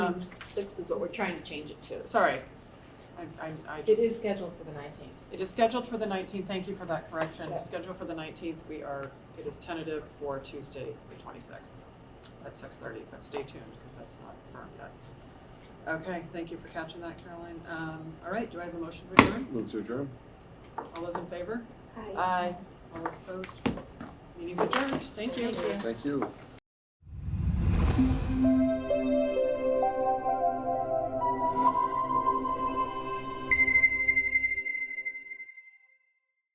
on sixth is what we're trying to change it to. Um, Sorry. I, I, I It just, is scheduled for the nineteenth. it is scheduled for the nineteenth, thank you for that correction, Yeah. scheduled for the nineteenth, we are, it is tentative for Tuesday, the twenty-sixth, at six thirty, but stay tuned, because that's not firm yet. Okay, thank you for catching that, Caroline, um, all right, do I have a motion to adjourn? Move to adjourn. All those in favor? Aye. All those opposed? Meeting's adjourned, thank you. Thank you.